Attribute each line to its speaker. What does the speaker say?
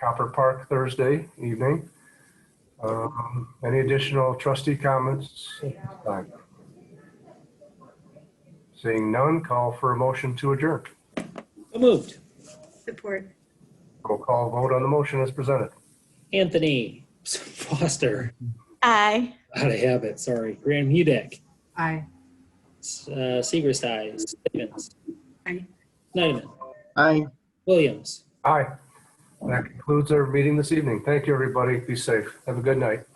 Speaker 1: Copper Park Thursday evening. Um, Any additional trustee comments? at this time? Seeing none, call for a motion to adjourn.
Speaker 2: So moved.
Speaker 3: Support.
Speaker 1: Roll call vote on the motion as presented.
Speaker 2: Anthony Foster,
Speaker 3: Aye.
Speaker 2: out of habit, sorry. Graham Hudek,
Speaker 3: Aye.
Speaker 2: uh, Segrist, aye. Stevens.
Speaker 3: Aye.
Speaker 2: Snyderman,
Speaker 4: Aye.
Speaker 2: Williams.
Speaker 1: Aye. That concludes our meeting this evening. Thank you, everybody. Be safe. Have a good night.